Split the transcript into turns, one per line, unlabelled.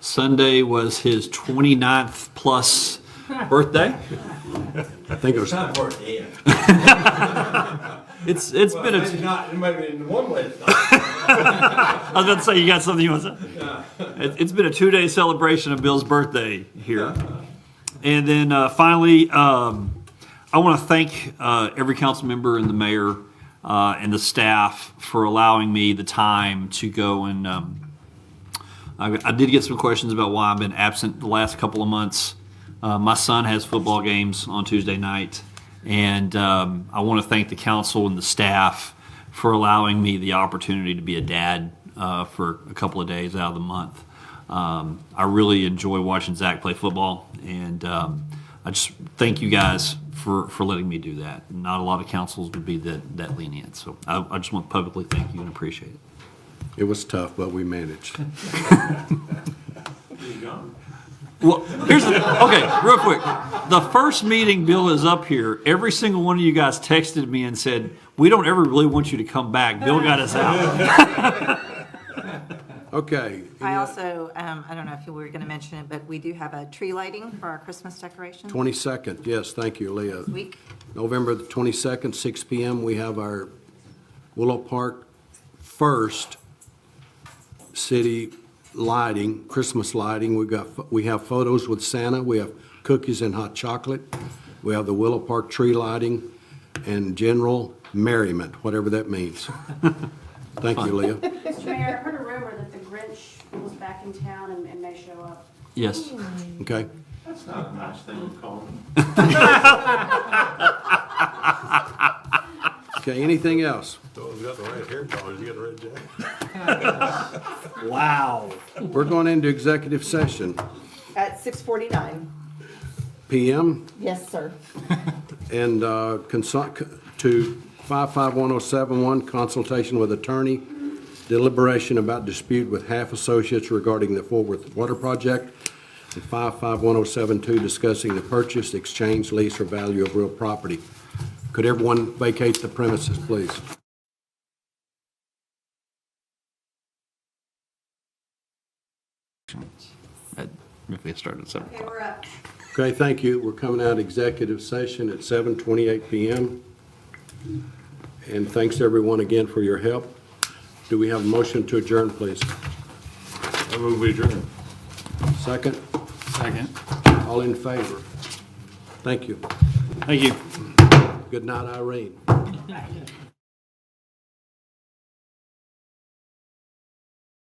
Sunday was his 29th plus birthday.
I think it was,
not worth it.
It's it's
Well,
been
maybe
a,
not, it might have been one way it's not.
I was about to say you got something you want to say. It, it's been a two day celebration of Bill's birthday here, and then uh, finally, um, I want to thank uh, every council member and the mayor uh, and the staff for allowing me the time to go and. Um, I, I did get some questions about why I've been absent the last couple of months. Uh, my son has football games on Tuesday night, and um, I want to thank the council and the staff for allowing me the opportunity to be a dad uh, for a couple of days out of the month. Um, I really enjoy watching Zach play football, and um, I just thank you guys for, for letting me do that. Not a lot of councils would be that, that lenient, so I, I just want to publicly thank you and appreciate it.
it was tough, but we managed.
Well, here's the, okay, real quick. The first meeting Bill is up here, every single one of you guys texted me and said, "We don't ever really want you to come back. Bill got us out."
Okay,
I also, um, I don't know if you were going to mention it, but we do have a tree lighting for our Christmas decorations this
22nd, yes, thank you, Leah.
week.
November the 22nd, 6 PM, we have our Willow Park First City Lighting, Christmas lighting. We've got, we have photos with Santa, we have cookies and hot chocolate, we have the Willow Park tree lighting, and general merriment, whatever that means. Thank you, Leah.
Mr. Mayor, I heard a rumor that the Grinch was back in town and, and may show up.
Yes.
Okay,
That's not a nice thing to call him.
okay, anything else?
Oh, you got the right hair colors, you got the right jacket.
Wow.
We're going into executive session.
At 6:49.
PM,
Yes, sir.
and uh, consult, to 551071, consultation with attorney, deliberation about dispute with half associates regarding the Fort Worth Water Project, and 551072, discussing the purchase, exchange, lease, or value of real property. Could everyone vacate the premises, please?
If we started seven
Okay, we're up.
Okay, thank you. We're coming out of executive session at 7:28 PM. And thanks, everyone, again for your help. Do we have a motion to adjourn, please?
I move we adjourn.
Second? Second. All in favor? Thank you.
Thank you.
Good night, Irene.